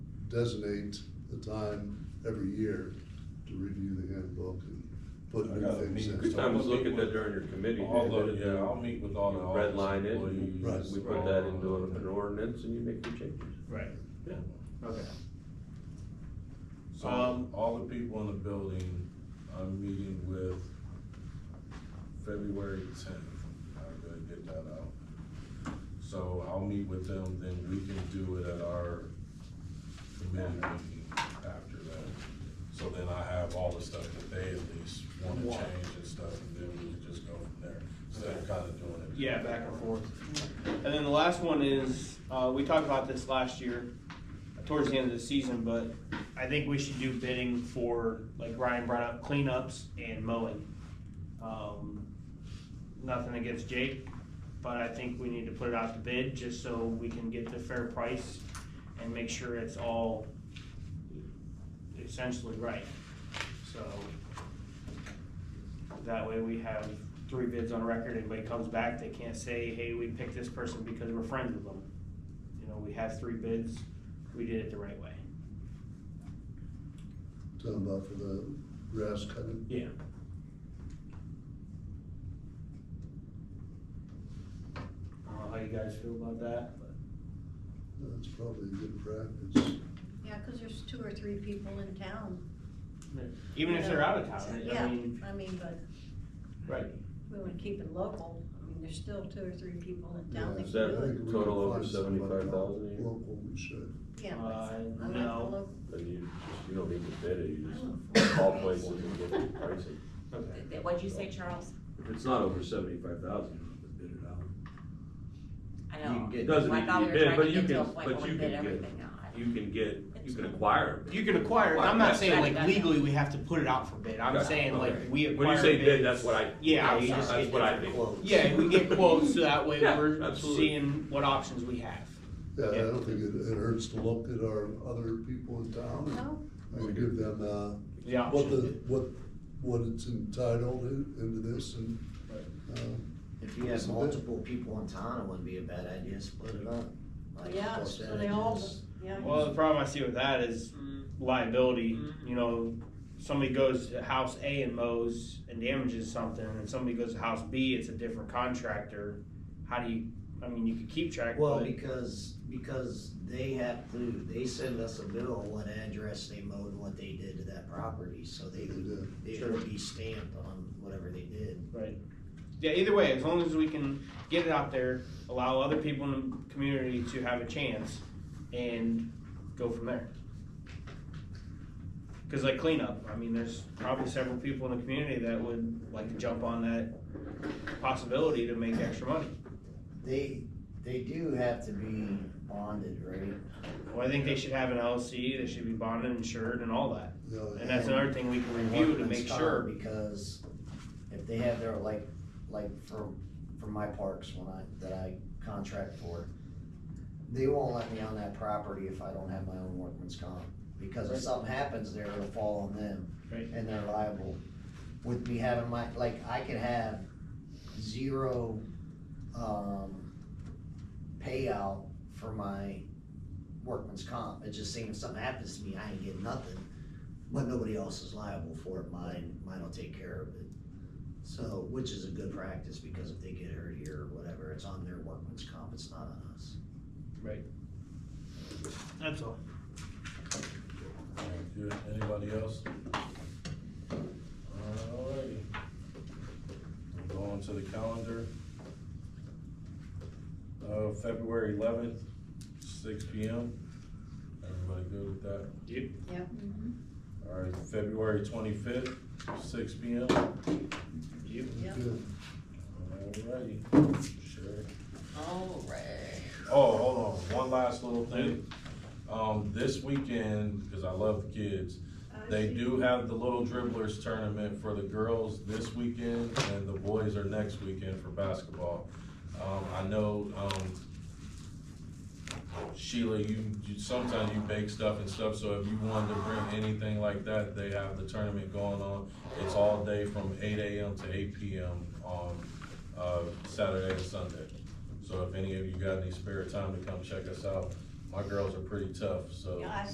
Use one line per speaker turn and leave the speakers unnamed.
designate a time every year to review the handbook and put
I got a
new things
meeting.
in.
Good time to look at that during your committee.
All the,
meeting,
yeah, I'll meet with all the
you Redline
office
it, and
Right.
employees.
we put that into an an ordinance and you make your changes.
Right,
Yeah.
okay.
So,
Um,
all the people in the building, I'm meeting with February tenth, I gotta get that out. So I'll meet with them, then we can do it at our committee meeting after that. So then I have all the stuff that they at least wanna
Want.
change and stuff, and then we can just go from there, instead of kinda doing it.
Yeah, back and forth. And then the last one is, uh, we talked about this last year, towards the end of the season, but I think we should do bidding for, like Ryan brought up, cleanups and mowing. Um, nothing against Jake, but I think we need to put it out to bid just so we can get the fair price and make sure it's all essentially right. So that way we have three bids on record. Anybody comes back, they can't say, hey, we picked this person because we're friends with them. You know, we have three bids, we did it the right way.
Talking about for the grass cutting.
Yeah. I don't know how you guys feel about that, but.
That's probably good practice.
Yeah, because there's two or three people in town.
Even if they're out of
So,
town, I
Yeah,
mean,
I mean, but
right,
we want to keep it local. I mean, there's still two or three people in town
Yeah,
that can
Is
do
that
I
it.
think we can
total over
find somebody
75,000 a year?
Local, we should.
Yeah. but
Uh,
I like the
no.
local.
And you just, you don't need to bid it, you
I
just
don't
call
know.
places and get the pricing.
okay.
What'd you say, Charles?
If it's not over seventy-five thousand, you have to bid it out.
I
You can
know.
get-
doesn't
I
need
thought
to be
we were
bid,
trying
but
to
you
get to a
can-
point
but
where we
you
bid
can get-
everything now. I-
You can get, you
It's
can
cool.
acquire. it.
You can acquire, it. I'm not saying like
Gotcha.
legally we have to put it out for bid, I'm
Gotcha.
saying like
Okay.
we acquire bids.
When you say bid, that's what I.
Yeah,
I'm
you
sorry,
just
That's
get
what I
different
think.
quotes.
Yeah, we get quotes, so that way
Yeah,
we're
absolutely.
seeing what options we have.
Yeah, I
Yeah.
don't think it, it hurts to look at our other people in town
No,
and give them, uh,
The
what
options.
the, what, what it's entitled in- into this and, um,
If you
It's
have
a bit-
multiple people in town, it wouldn't be a bad idea to split it up. Like,
yeah, so they all,
percentages.
yeah.
Well, the problem I see with that is
Mm-hmm.
liability. You know, somebody goes to house A and mows and damages something, and somebody goes to house B, it's a different contractor. How do you, I mean, you could keep track,
Well,
but
because, because they have to, they send us a bill on what address they mowed and what they did to that property, so they,
Yeah.
they
Sure.
would be stamped on whatever they did.
yeah, either way, as long as we can get it out there, allow other people in the community to have a chance and go from there. Because like cleanup, I mean, there's probably several people in the community that would like to jump on that possibility to make extra money.
They, they do have to be bonded, right?
Well, I think they should have an LLC, they should be bonded, insured, and all that.
you know,
And that's another thing we can review to make
Workman's comp,
sure.
Because if they have their, like, like for, for my parks when I, that I contract for, they won't let me on that property if I don't have my own workman's comp. Because if
Right.
something happens there, it'll fall on them
Right.
and they're liable. With me having my, like, I could have zero, um, payout for my workman's comp. It's just saying if something happens to me, I ain't getting nothing, but nobody else is liable for it. Mine, mine will take care of it. So, which is a good practice because if they get hurt here or whatever, it's on their workman's comp, it's not on us.
That's all.
Thank you. Anybody else? Alrighty. Going to the calendar. Uh, February eleventh, six P M. Everybody good with that?
Yeah.
Alright, February twenty-fifth, six P M.
Yeah.
good.
Alrighty, sure.
All right.
Oh, hold on, one last little thing. Um, this weekend, because I love kids, They do have the Little Dribblers tournament for the girls this weekend, and the boys are next weekend for basketball. Um, I know, um, Sheila, you, you, sometimes you bake stuff and stuff, so if you wanted to bring anything like that, they have the tournament going on. It's all day from eight AM to eight PM on, uh, Saturday and Sunday. So if any of you got any spare time to come check us out, my girls are pretty tough, so.
Yeah, I